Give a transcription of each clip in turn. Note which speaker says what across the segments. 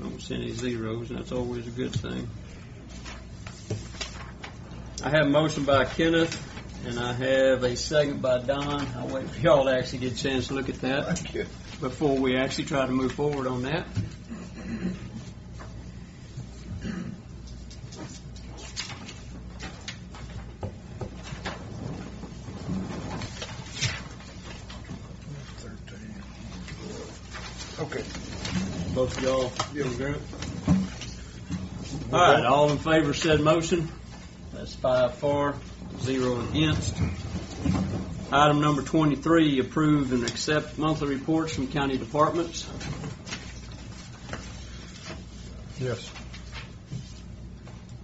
Speaker 1: don't see any zeros, and that's always a good thing. I have a motion by Kenneth, and I have a second by Don. I'll wait for y'all to actually get a chance to look at that
Speaker 2: Thank you.
Speaker 1: before we actually try to move forward on that.
Speaker 2: Okay.
Speaker 1: Both of y'all
Speaker 2: Yeah.
Speaker 1: in agreement? All right, all in favor said motion. That's five for, zero against. Item number 23, approve and accept monthly reports from county departments.
Speaker 2: Yes.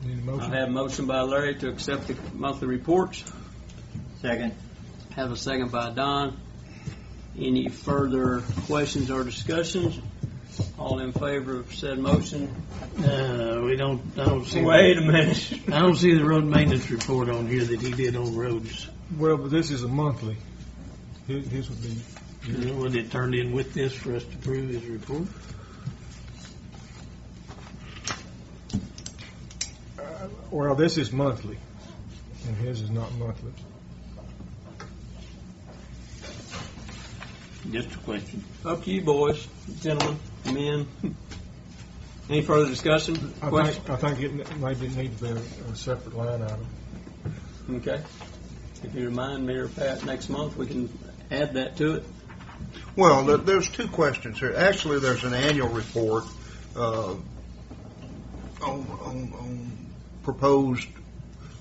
Speaker 2: Need a
Speaker 1: I
Speaker 2: motion?
Speaker 1: have a motion by Larry to accept the monthly reports.
Speaker 3: Second.
Speaker 1: Have a second by Don. Any further questions or discussions? All in favor of said motion?
Speaker 4: Uh, we don't, I don't see.
Speaker 1: Wait a minute.
Speaker 4: I don't see the road maintenance report on here that he did on roads.
Speaker 2: Well, but this is a monthly. His, his would be,
Speaker 3: Uh,
Speaker 4: Was it turned in with this for us to prove his report?
Speaker 2: uh, well, this is monthly, and his is not monthly.
Speaker 4: Just a question.
Speaker 1: Up to you, boys, gentlemen, men. Any further discussion?
Speaker 2: I
Speaker 1: Question?
Speaker 2: think, I think it n- maybe it needs to be a a separate line item.
Speaker 1: Okay. If you remind me or Pat next month, we can add that to it.
Speaker 5: Well, there- there's two questions here. Actually, there's an annual report uh, on, on, on proposed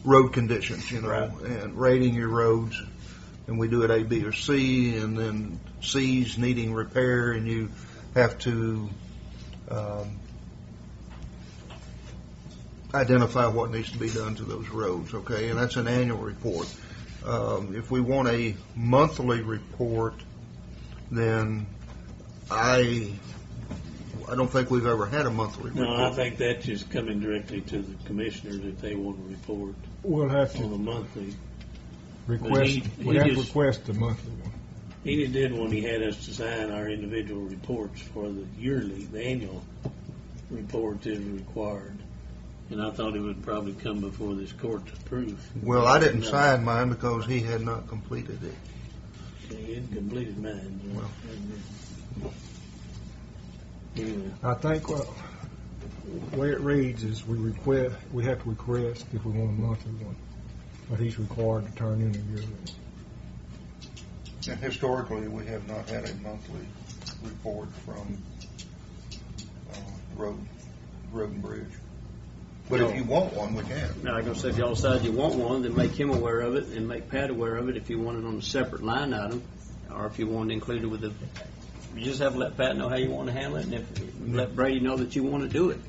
Speaker 5: road conditions, you know, and rating your roads. And we do it A, B, or C, and then C's needing repair, and you have to um, identify what needs to be done to those roads. Okay, and that's an annual report. Um, if we want a monthly report, then I, I don't think we've ever had a monthly report.
Speaker 3: No, I think that's just coming directly to the commissioners if they want to report
Speaker 2: We'll have
Speaker 3: on the
Speaker 2: to
Speaker 3: monthly.
Speaker 2: request,
Speaker 3: Oh, he-
Speaker 2: we
Speaker 3: he
Speaker 2: have to
Speaker 3: just-
Speaker 2: request the monthly one.
Speaker 3: He just did when he had us to sign our individual reports for the yearly, the annual report is required. And I thought it would probably come before this court to approve.
Speaker 5: Well, I didn't
Speaker 3: No.
Speaker 5: sign mine because he had not completed it.
Speaker 3: He had completed mine.
Speaker 5: Well.
Speaker 3: Anyway,
Speaker 2: I think, well, the way it reads is we request, we have to request if we want a monthly one, but he's required to turn in a yearly.
Speaker 5: And historically, we have not had a monthly report from uh, Road, Road and Bridge. But if you want one, we can.
Speaker 1: Now, I'm gonna say, if y'all decide you want one, then make him aware of it and make Pat aware of it if you want it on a separate line item, or if you want it included with the, you just have to let Pat know how you want to handle it, and if, let Brady know that you want to do it.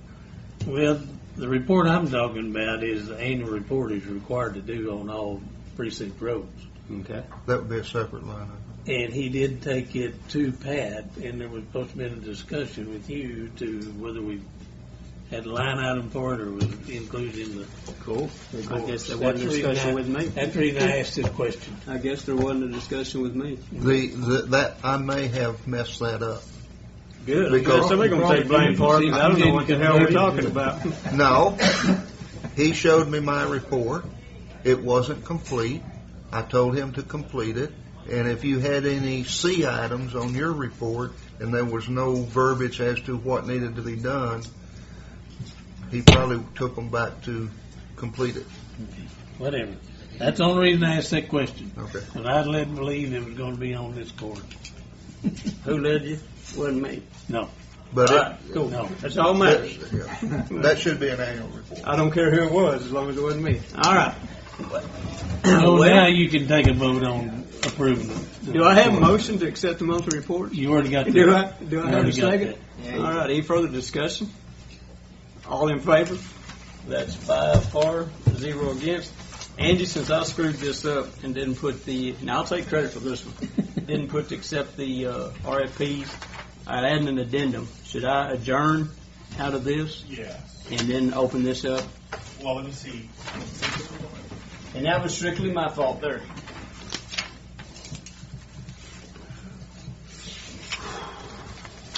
Speaker 3: Well, the report I'm talking about is the annual report is required to do on all precinct roads.
Speaker 1: Okay.
Speaker 5: That would be a separate line item.
Speaker 3: And he did take it to Pat, and there was supposed to be a discussion with you to whether we had a line item for it or was it included in the.
Speaker 1: Cool. I guess there wasn't a
Speaker 3: That's the reason
Speaker 1: discussion
Speaker 3: I-
Speaker 1: with me.
Speaker 3: That's the reason I asked this question.
Speaker 1: I guess there wasn't a discussion with me.
Speaker 5: The, the- that, I may have messed that up.
Speaker 1: Good.
Speaker 5: I guess somebody
Speaker 2: gonna take blame for
Speaker 1: it.
Speaker 5: I don't know what the hell we're talking
Speaker 1: about.
Speaker 5: No, he showed me my report. It wasn't complete. I told him to complete it. And if you had any C items on your report and there was no verbiage as to what needed to be done, he probably took them back to complete it.
Speaker 3: Whatever. That's the only reason I asked that question.
Speaker 5: Okay.
Speaker 3: Because I didn't believe it was going to be on this court.
Speaker 1: Who led you? Wasn't me.
Speaker 5: But
Speaker 1: All
Speaker 5: it,
Speaker 1: right, cool.
Speaker 3: No.
Speaker 1: That's all matters.
Speaker 5: that, yeah. That should be an annual report.
Speaker 1: I don't care who it was, as long as it wasn't me. All right.
Speaker 3: So now
Speaker 1: Well,
Speaker 3: you can take a vote on approving it.
Speaker 1: Oh, do I have a motion to accept the monthly report?
Speaker 3: You already got that.
Speaker 1: Do I, do I
Speaker 3: You
Speaker 1: have a
Speaker 3: already got
Speaker 1: second? All right, any further discussion? All in favor? That's five for, zero against. Andy, since I screwed this up and didn't put the, now I'll take credit for this one, didn't put to accept the uh, RFPs, I'd add an addendum. Should I adjourn out of this
Speaker 6: Yeah,
Speaker 1: and then open this up?
Speaker 6: well, let me see.
Speaker 1: And that was strictly my fault there.